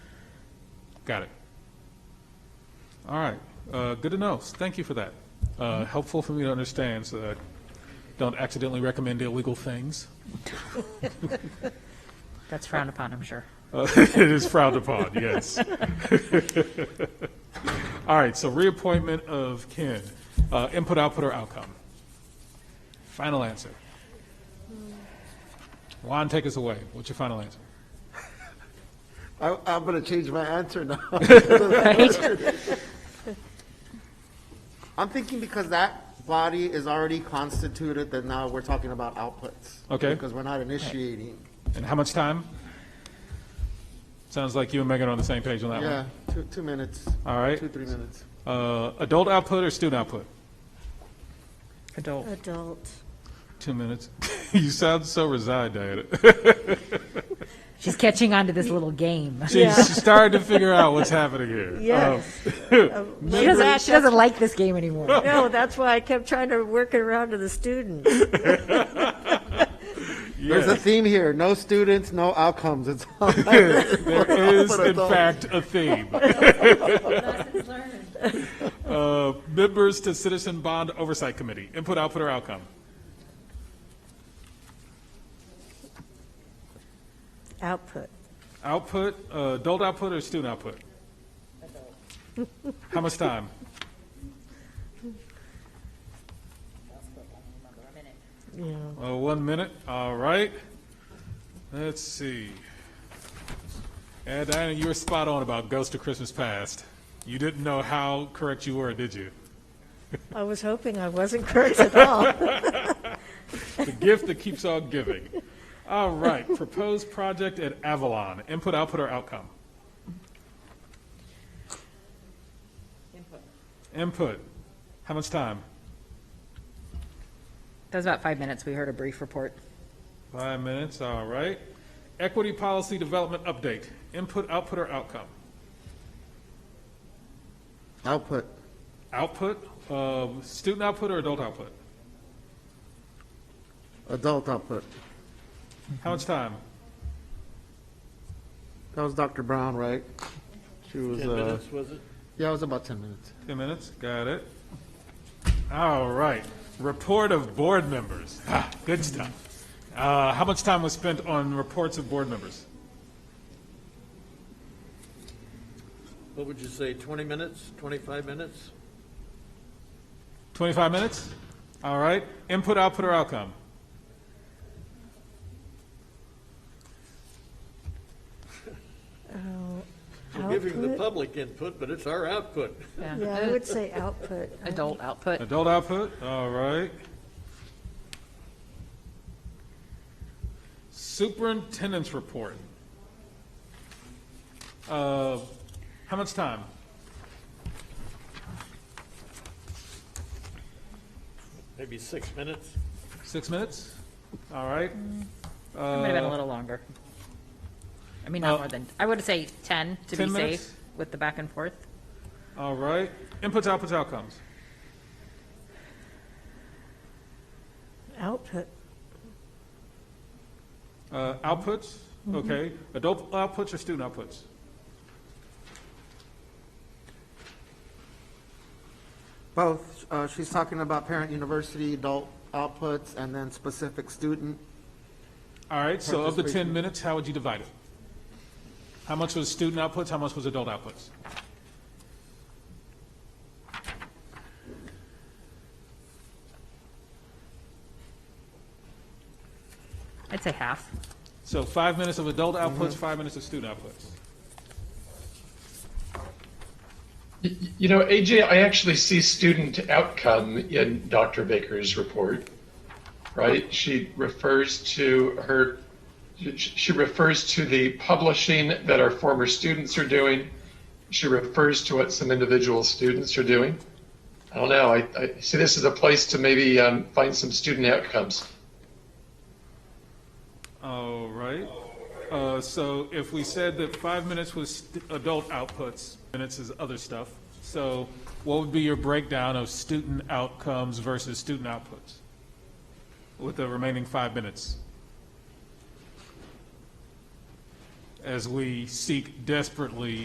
Got it. All right, uh, good to know. Thank you for that. Uh, Helpful for me to understand, so that I don't accidentally recommend illegal things. That's frowned upon, I'm sure. Uh, It is frowned upon, yes. All right, so reappointment of Ken. Uh, Input, output, or outcome? Final answer. Juan, take us away. What's your final answer? I, I'm going to change my answer now. I'm thinking because that body is already constituted, that now we're talking about outputs. Okay. Because we're not initiating. And how much time? Sounds like you and Megan are on the same page on that one. Yeah, two, two minutes. Uh-huh. All right. Two, three minutes. Uh, Adult output or student output? Adult. Adult. Two minutes. you sound so resigned, Diana. She's catching on to this little game. She's starting to figure out what's happening here. Yes. She doesn't, she doesn't like this game anymore. No, that's why I kept trying to work it around to the students. Um, There's a yes, theme here, no students, no outcomes. It's all there is, But in adult. fact, a theme. uh, members to Citizen Bond Oversight Committee. Input, output, or outcome? Output. Output, uh, adult output, or student output? How much time? Uh, one minute, all right. Let's see. And Diana, you were spot on about Ghost of Christmas Past. You didn't know how correct you were, did you? I was hoping I wasn't correct at all. The gift that keeps on giving. All right, proposed project at Avalon, input, output, or outcome? Input. Input. How much time? That was about five minutes. We heard a brief report. Five minutes, all right. Equity policy development update, input, output, or outcome? output. Output, uh, student output or adult output? Adult output. How much time? That was Dr. Brown, right? She was, Ten uh, minutes, was it? yeah, it was about 10 minutes. 10 minutes, got it. All right, report of board members. Ah, Good stuff. Uh, How much time was spent on reports of board members? What would you say, 20 minutes, 25 minutes? 25 minutes? All right, input, output, or outcome? We're giving the Output? public input, but it's our output. Yeah, I would say output. Adult output. Adult output, all right. Superintendent's report. Uh, How much time? Maybe six minutes? Six minutes? All right. It might have been a little longer. I mean, not uh, more than, I would say 10 to 10 be minutes? safe with the back and forth. Uh, All right. Inputs, outputs, outcomes. Output. Uh, outputs, okay. Adult outputs or student outputs? Both, uh, she's talking about parent university, adult outputs, and then specific student. All right, so of the 10 Participation. minutes, how would you divide it? How much was student outputs, how much was adult outputs? I'd say half. So five minutes of adult outputs, five minutes of student outputs. Y- You know, AJ, I actually see student outcome in Dr. Baker's report, right? She refers to her, she- she refers to the publishing that our former students are doing. She refers to what some individual students are doing. I don't know. I, I see this as a place to maybe um, find some student outcomes. All right. Uh, So if we said that five minutes was st- adult outputs, minutes is other stuff, so what would be your breakdown of student outcomes versus student outputs with the remaining five minutes? As we seek desperately